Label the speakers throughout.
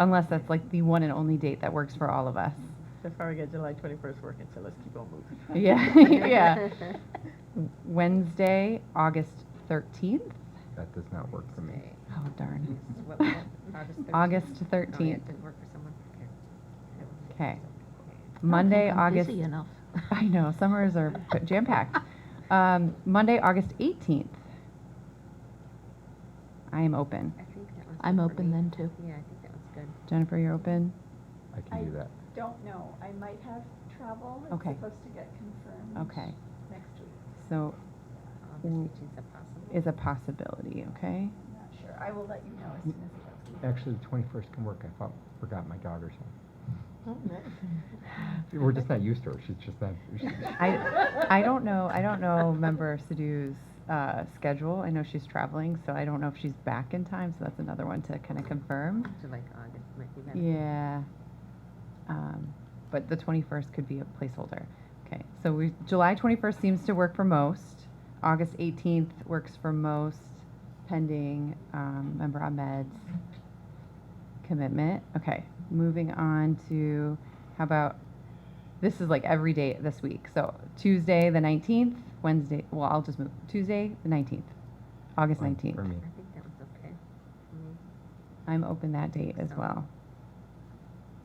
Speaker 1: unless that's like the one and only date that works for all of us.
Speaker 2: So far, we got July 21st working, so let's keep on moving.
Speaker 1: Yeah, yeah. Wednesday, August 13th?
Speaker 3: That does not work for me.
Speaker 1: Oh, darn.
Speaker 4: What- what- August 13th?
Speaker 1: August
Speaker 4: Oh, yeah,
Speaker 1: 13th.
Speaker 4: it didn't work for someone? Okay.
Speaker 1: Okay.
Speaker 5: Oh,
Speaker 1: Monday, August. I know, summers are jam packed. Um, Monday, August 18th. I am open.
Speaker 4: I think that one's
Speaker 5: I'm
Speaker 4: good for
Speaker 5: open
Speaker 4: me.
Speaker 5: then, too.
Speaker 4: Yeah, I think that one's good.
Speaker 1: Jennifer, you're open?
Speaker 3: I
Speaker 6: I-
Speaker 3: can do that.
Speaker 6: Don't know, I might have travel.
Speaker 1: Okay.
Speaker 6: It's supposed to get confirmed.
Speaker 1: Okay.
Speaker 6: Next week,
Speaker 1: So Mm.
Speaker 4: August 18th is possible.
Speaker 1: is a possibility, okay?
Speaker 6: I'm not sure. I will let you know
Speaker 1: Mm.
Speaker 6: as soon as it gets confirmed.
Speaker 3: Actually, the twenty-first can work. I thought, forgot my daughter's home. We're just not used to her. She's just not. she's-
Speaker 1: I, I don't know, I don't know member Sadoo's, uh, schedule. I know she's traveling, so I don't know if she's back in time, so that's another one to kind of confirm.
Speaker 4: So like August might be better.
Speaker 1: Yeah. Um, but the 21st could be a placeholder. Okay, so we, July 21st seems to work for most. August 18th works for most, pending um, member Ahmed's commitment. Okay, moving on to how about this is like every day this week. So Tuesday the 19th, Wednesday, well, I'll just move Tuesday the 19th, August
Speaker 3: Fine For
Speaker 1: 19th.
Speaker 3: me.
Speaker 4: I think that one's okay. for me.
Speaker 1: I'm open that date as well.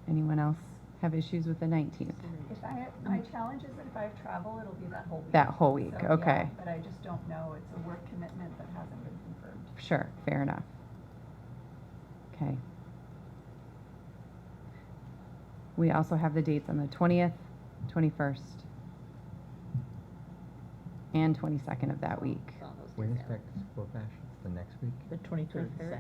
Speaker 1: Anyone else have issues with the 19th?
Speaker 6: If I, have- my challenge is that if I have travel, it'll be that whole week.
Speaker 1: mm. That whole week,
Speaker 6: So, yeah,
Speaker 1: okay.
Speaker 6: But I just don't know. It's a work commitment that hasn't been confirmed.
Speaker 1: Sure, fair enough. Okay. We also have the dates on the 20th, 21st, and 22nd of that week.
Speaker 4: It's all those days
Speaker 3: When is
Speaker 4: out.
Speaker 3: back to school, Bash? The next week?
Speaker 2: The 23rd, is
Speaker 4: 23rd.
Speaker 2: Saturday.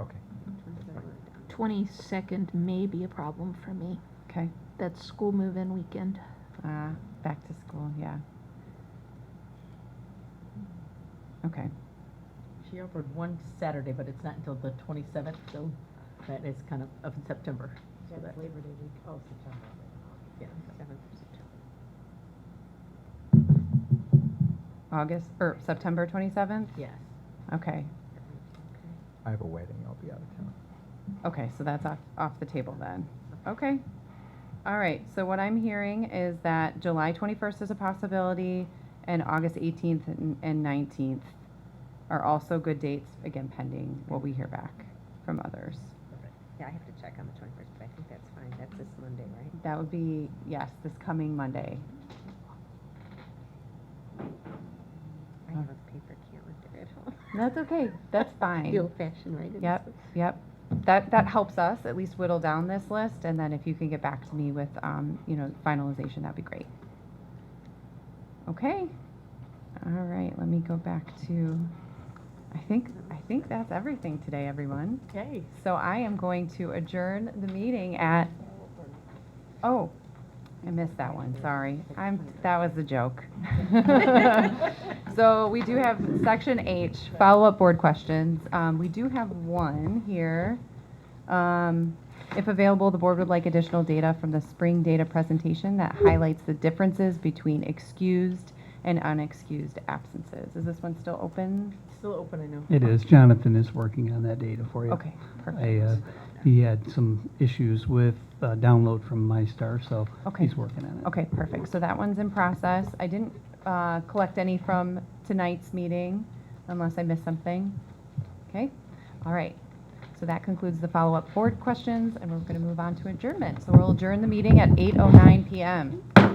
Speaker 3: Okay.
Speaker 4: Twenty-third we're done.
Speaker 5: Twenty-second may be a problem for me.
Speaker 1: Okay,
Speaker 5: That's school move-in weekend.
Speaker 1: uh, back to school, yeah. Okay,
Speaker 2: She offered one Saturday, but it's not until the 27th, so that is kind of, of September. So that Labor Day week, oh, September. Yeah,
Speaker 4: Seventh of September.
Speaker 1: August, or September 27th?
Speaker 2: yes.
Speaker 1: Okay,
Speaker 4: That one's okay.
Speaker 3: I have a wedding. I'll be out of town.
Speaker 1: Okay, so that's off, off the table then. Okay. All right, so what I'm hearing is that July 21st is a possibility, and August 18th and and 19th are also good dates, again, pending what we hear back from others.
Speaker 4: Yeah, I have to check on the twenty-first, but I think that's fine. That's this Monday, right?
Speaker 1: That would be, yes, this coming Monday.
Speaker 4: I have a paper calendar at home.
Speaker 1: That's okay, that's
Speaker 4: The
Speaker 1: fine.
Speaker 4: old-fashioned way to. do
Speaker 1: Yep,
Speaker 4: it.
Speaker 1: yep. That, that helps us at least whittle down this list, and then if you can get back to me with, um, you know, finalization, that'd be great. Okay. All right, let me go back to, I think, I think that's everything today, everyone.
Speaker 2: Okay.
Speaker 1: So I am going to adjourn the meeting at, oh, I missed that one, sorry. I'm, that was a joke. So we do have section H, follow-up board questions. Um, we do have one here. Um, if available, the board would like additional data from the spring data presentation that highlights the differences between excused and unexcused absences. Is this one still open?
Speaker 2: Still open, I know.
Speaker 7: It is. Jonathan is working on that data for you.
Speaker 1: Okay,
Speaker 7: I,
Speaker 1: perfect.
Speaker 7: uh, he had some issues with uh, download from MyStar, so
Speaker 1: Okay.
Speaker 7: he's working on it.
Speaker 1: Okay, perfect. So that one's in process. I didn't uh, collect any from tonight's meeting unless I missed something. Okay, all right. So that concludes the oh follow-up board questions, and we're going to move on to adjournment. So we'll adjourn the meeting at 8:09 PM.